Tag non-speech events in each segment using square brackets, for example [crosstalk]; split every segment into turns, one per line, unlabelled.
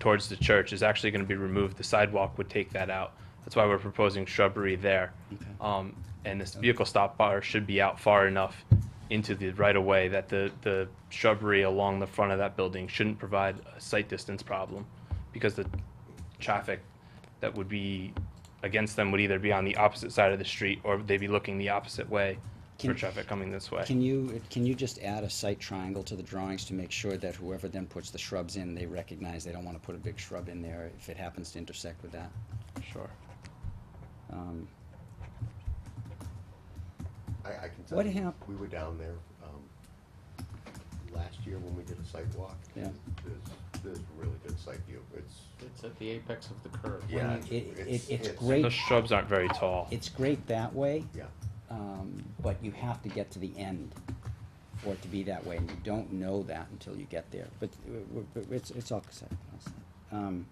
towards the church is actually going to be removed. The sidewalk would take that out. That's why we're proposing shrubbery there. Um, and this vehicle stop bar should be out far enough into the right of way that the, the shrubbery along the front of that building shouldn't provide a sight distance problem because the traffic that would be against them would either be on the opposite side of the street or they'd be looking the opposite way for
Can-
traffic coming this way.
Can you, can you just add a site triangle to the drawings to make sure that whoever then puts the shrubs in, they recognize they don't wanna put a big shrub in there if it happens to intersect with that?
Sure.
Um,
I, I can tell
What
you,
hap-
we were down there, um, last year when we did a site walk.
Yeah.
There's, there's really good site view, it's,
It's at the apex of the curve.
Yeah.
I mean, It, it,
it's-
it's
it's-
The
great,
shrubs aren't very tall.
it's great that way,
yeah,
um, but you have to get to the end for it to be that way, and you don't know that until you get there, but uh, w- w- it's, it's all set. all set. Um,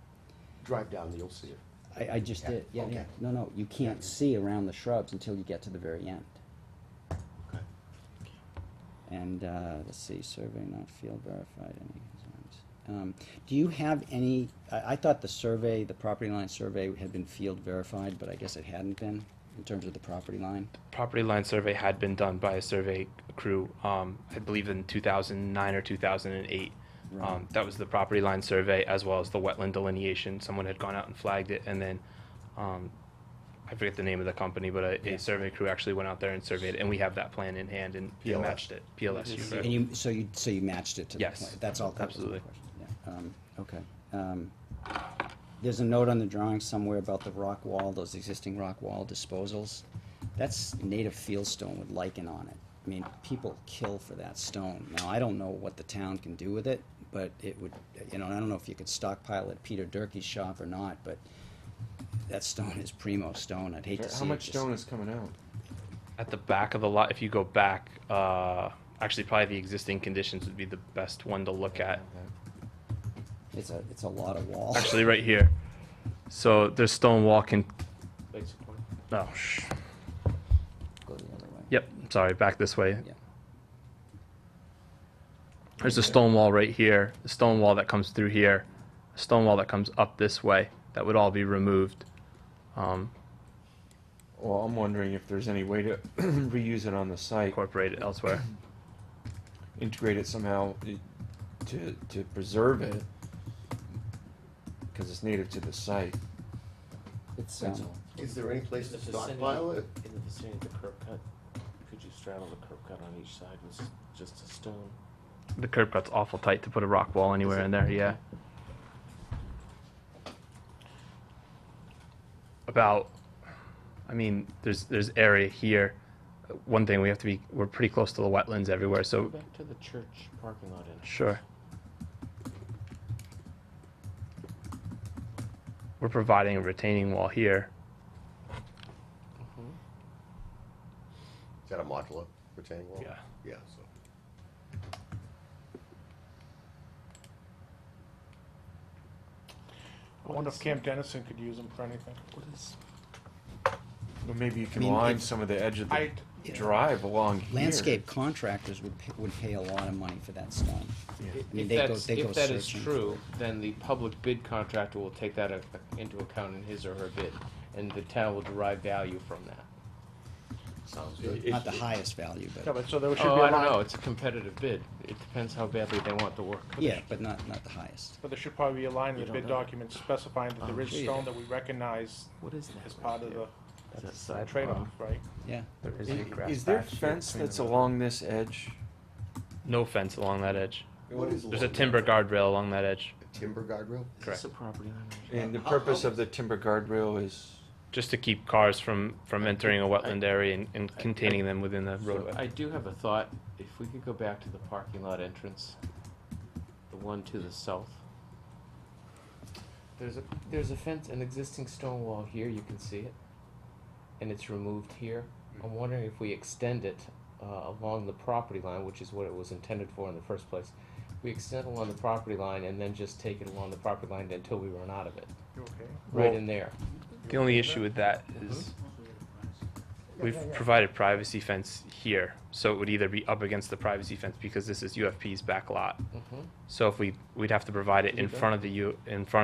drive down, you'll see it.
I, I just
Yeah,
did, yeah, yeah,
okay.
no, no, you can't see around the shrubs until you get to the very end.
Okay.
And, uh, let's see, survey not field verified, any concerns? Um, do you have any, I, I thought the survey, the property line survey had been field verified, but I guess it hadn't been in terms of the property line?
property line survey had been done by a survey crew, um, I believe in two thousand nine or two thousand and eight. Um,
Right.
that was the property line survey as well as the wetland delineation. Someone had gone out and flagged it and then, um, I forget the name of the company, but a,
Yeah.
a survey crew actually went out there and surveyed it and we have that plan in hand and and
PLS.
matched it. PLS,
And
right?
you, so you, so you matched it to the
Yes.
plan? That's all, that was my
Absolutely.
question, yeah, um, okay. Um, There's a note on the drawing somewhere about the rock wall, those existing rock wall disposals. That's native field stone with lichen on it. I mean, people kill for that stone. Now, I don't know what the town can do with it, but it would, you know, and I don't know if you could stockpile at Peter Durkee's shop or not, but that stone is primo stone, I'd hate to see it
How much
just-
stone is coming out?
At the back of the lot, if you go back, uh, actually probably the existing conditions would be the best one to look at.
Oh, It's a, it's a lot of wall.
Actually, right here. So there's stone wall can,
Basically.
oh, sh-
Go the other way.
Yep, sorry, back this way.
Yeah.
There's a stone wall right here, a stone wall that comes through here, a stone wall that comes up this way. That would all be removed. Um,
Well, I'm wondering if there's any way to [clears throat] reuse it on the site,
incorporated elsewhere.
integrate it somehow i- to, to preserve it. Cause it's native to the site.
It's,
That's
um,
all.
Is there any place
In the
to
vicinity-
stockpile it?
In the vicinity of the curb cut, could you straddle the curb cut on each side with s- just a stone?
The curb cut's awful tight to put a rock wall anywhere
Is it?
in there, yeah. About, I mean, there's, there's area here. One thing, we have to be, we're pretty close to the wetlands everywhere,
Go
so,
back to the church parking lot in.
sure. We're providing a retaining wall here.
Is that a modular retaining wall?
Yeah.
Yeah, so.
I wonder if Camp Dennison could use them for anything.
What is,
Or maybe you can
mean,
line
if-
some of the edge of the
I,
drive along here.
landscape contractors would, pay- would pay a lot of money for that stone.
Yeah.
mean,
if
they go-
that's,
they go
if that is
searching.
true, then the public bid contractor will take that a- into account in his or her bid, and the town will derive value from that.
Sounds
It-
good.
Not
it-
the highest value,
yeah,
but,
but so there should be a
Oh, I don't
line,
know, it's a competitive bid, it depends how badly they want the work.
yeah, but not, not the highest.
but there should probably be a line in
You
the
don't
bid
know. Oh,
document specifying that there is
Okay.
stone that we recognize
What is that?
as part of the
That's a sidewalk.
trade-off, right?
Yeah,
There is a
I-
grass
Is there
patch here
fence
between
that's
the-
along this edge?
No fence along that edge.
What is
There's a
along that
timber
edge?
guardrail along that edge,
A Timber guardrail?
Is
Correct.
this a property owner?
And the purpose of the timber guardrail is,
just to keep cars from, from entering a wetland area and, and
I-
containing them within the
I
roadway.
do have a thought, if we could go back to the parking lot entrance, the one to the south. There's a, there's a fence, an existing stone wall here, you can see it, and it's removed here. I'm wondering if we extend it, uh, along the property line, which is what it was intended for in the first place. We extend along the property line and then just take it along the property line until we run out of it,
You okay?
right
Well-
in there.
The only issue with that is we've provided privacy fence here, so it would either be up against the privacy fence because this is UFP's back lot.
Mhm.
So if we, we'd have to provide it in front of the U, in front